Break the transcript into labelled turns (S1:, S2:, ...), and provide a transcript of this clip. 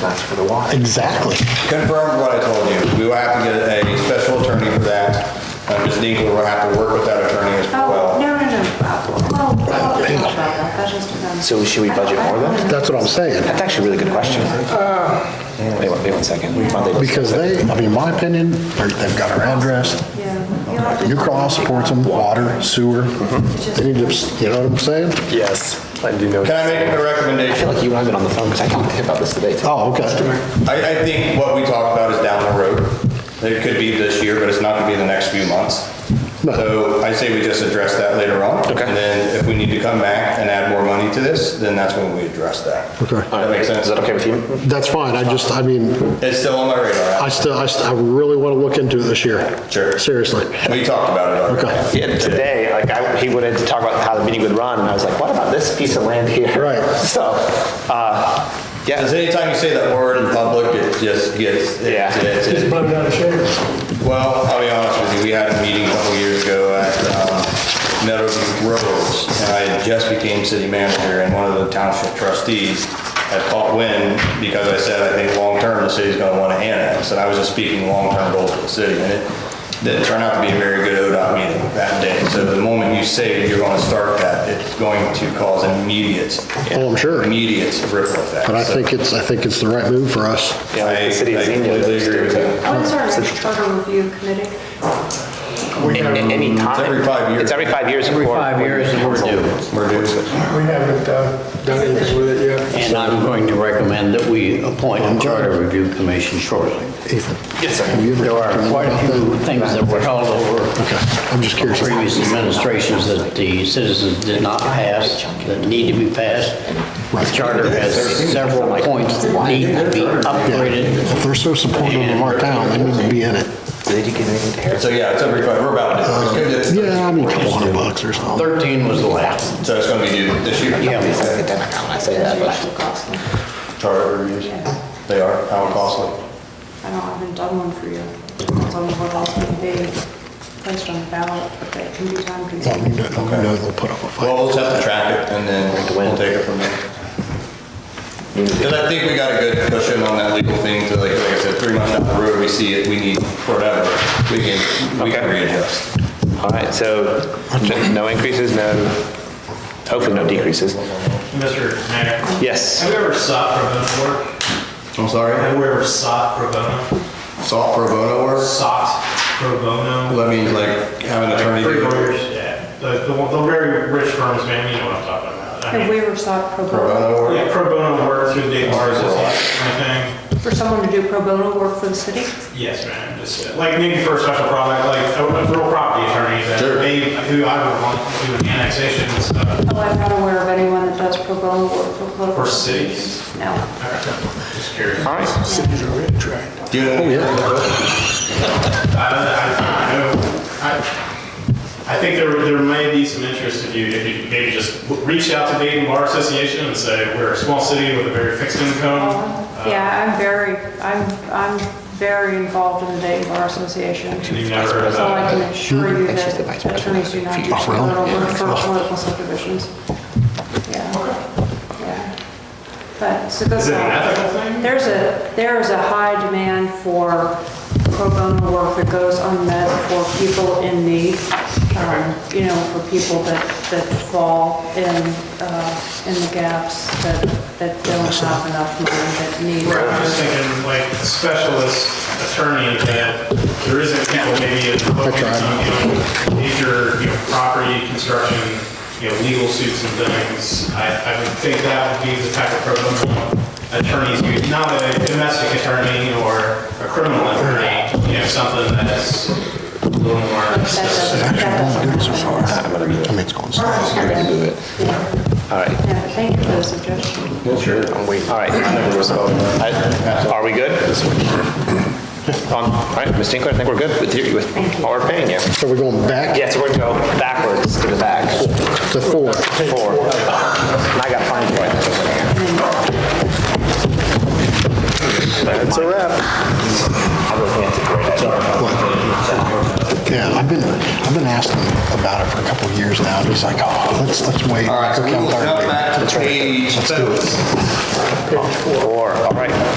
S1: sense for the water.
S2: Exactly.
S3: Confirm what I told you. We will have to get a special attorney for that. Uh, Ms. Dinkler will have to work with that attorney as
S4: Oh,
S3: well.
S4: no, no, no. Oh, well, well, it's not about that. That's just, um,
S1: So should we budget more then?
S2: That's what I'm saying.
S1: That's actually a really good question. Wait, one- wait one second. Why don't they-
S2: Because they, I mean, my opinion, they're- they've got our address.
S4: Yeah. You'll have to-
S2: New Cross supports them, water, sewer. They need to, you know what I'm saying?
S5: Yes, I do know.
S3: Can I make a
S1: I feel
S3: recommendation?
S1: like you and I have been on the phone because I talked to him about this today. too.
S2: Oh, okay.
S3: I, I think what we talked about is down the road. It could be this year, but it's not gonna be in the next few months. So I say we just address that later on.
S1: Okay.
S3: And then if we need to come back and add more money to this, then that's when we address that.
S2: Okay.
S3: That makes
S1: Is
S3: sense.
S1: that okay with you?
S2: That's fine. I just, I mean,
S3: It's still on my
S2: I
S3: radar.
S2: still, I st- I really want to look into it this year.
S3: Sure.
S2: Seriously.
S3: We talked about it already.
S2: Okay.
S1: Yeah, today, like, I, he wanted to talk about how the meeting would run, and I was like, what about this piece of land here?
S2: Right.
S1: So, uh,
S3: Because
S1: yeah,
S3: anytime you say that word in public, it just gets,
S1: Yeah.
S3: it's, it's, it's-
S5: Blown out of shape.
S3: well, I'll be honest with you, we had a meeting a couple years ago at um, Meadowview Roads, and I had just became city manager, and one of the township trustees had caught wind because I said, I think long-term, the city's gonna wanna annex, and I was just speaking long-term goals for the city, and it didn't turn out to be a very good ODOT meeting that day. So the moment you say you're gonna start that, it's going to cause immediate,
S2: Oh, I'm sure.
S3: immediate ripple effect.
S2: But I
S3: So-
S2: think it's, I think it's the right move for us.
S1: yeah, like
S3: I-
S1: the city of
S3: I
S1: Xenia.
S3: completely agree with you.
S4: What is our next charter review committee?
S1: A-
S6: We
S1: a-
S6: haven't,
S1: Any time.
S3: every five years.
S1: It's every five years.
S6: Every
S1: before-
S6: five years is we're due.
S3: We're due.
S5: We haven't uh, done anything with it yet.
S6: and I'm going to recommend that we appoint a charter review commission shortly.
S2: Ethan.
S6: Yes, sir. There are quite a few things that were held over
S2: Okay, I'm just curious.
S6: previous administrations that the citizens did not pass, that need to be passed. The charter has several points that need to be upgraded.
S2: If they're so supportive of our town, they need to be in it.
S1: Did you get anything to Harris?
S3: So yeah, it's every five, we're about it.
S2: Um, Yeah, I mean, a couple hundred bucks or something.
S6: 13 was the last.
S3: So it's gonna be due this year?
S6: Yeah.
S1: Get that account, I say that, but-
S3: Charter reviews, they are, how costly.
S4: I don't, I haven't done one for you. Depends on what else can be placed on the ballot, but that can be time
S2: Well, we
S4: consuming.
S2: know, we know they'll put up a fight.
S3: Well, we'll just have to track it and then we'll take it from there. Cause I think we got a good cushion on that legal thing to like, like I said, three months down the road, we see it, we need whatever, we can, we can
S1: Okay.
S3: readjust.
S1: All right, so no increases, no, hopefully no decreases.
S7: Mr. Mayor,
S1: Yes.
S7: have you ever sought pro bono work?
S3: I'm sorry,
S7: Have you ever sought pro bono?
S3: salt pro bono work,
S7: Sought pro bono?
S3: that means like have an attorney.
S7: Free
S3: do it.
S7: lawyers, yeah. The, the one- the very rich firms, man, you know what I'm talking about. I
S4: Have
S7: mean,
S4: we ever sought pro
S3: Pro
S4: bono?
S3: bono work,
S7: Yeah, pro bono work through the bars, is that kind of thing?
S4: For someone to do pro bono work for the city?
S7: Yes, man, just, uh, like maybe for a special product, like a a real property attorney that
S3: Sure.
S7: may, who I would want to do an annexation and stuff
S4: Oh, I'm not aware of anyone that does pro bono work for political.
S7: for cities.
S4: No.
S7: Just curious.
S1: All right,
S3: do you know?
S1: Oh,
S3: any attorney do it?
S7: I, I, don't know. I, I think there, there may be some interest if you, if you maybe just w- reach out to Dayton Bar Association and say, we're a small city with a very fixed income.
S4: Oh, Yeah, I'm very, I'm, I'm very involved in the Dayton Bar Association.
S7: And you never,
S4: So I
S7: uh,
S4: can assure you
S1: I think she's the
S4: that
S1: vice president.
S4: attorneys do not do
S2: Oh, really?
S4: criminal work
S2: Yeah.
S4: for political subdivisions. Yeah, yeah. But, so that's
S7: is it an
S4: not-
S7: ethical thing?
S4: There's a, there is a high demand for pro bono work that goes unmet for people in need, um, you know, for people that, that fall in, uh, in the gaps, that, that don't have enough money, that need.
S7: Right, I'm just thinking like a specialist attorney that there isn't people maybe in focus on, you know, major, you know, property, construction, you know, legal suits and things. I, I would think that would be the type of pro bono attorneys, you, not a domestic attorney or a criminal attorney, you know, something that's a little more.
S4: That doesn't, that doesn't
S1: I'm
S4: happen.
S1: gonna do
S2: I
S1: it.
S2: mean, it's going south.
S1: I'm gonna do it. All right,
S4: Yeah, thank you for the suggestion.
S1: I'm waiting. All right. I- Are we good? Um, All right, Ms. Tinkler, I think we're good with you, with all we're paying you.
S2: So we're going back
S1: Yeah, so we're gonna go backwards to the back,
S2: to four.
S1: four. And I gotta find it. That's a wrap. I really think it's a great idea.
S2: Yeah, I've been, I've been asking about it for a couple of years now. and He's like, oh, let's, let's wait.
S3: All right, so we
S2: Okay,
S3: will
S2: I'm tired.
S3: jump back to page seven.
S1: Four, all right.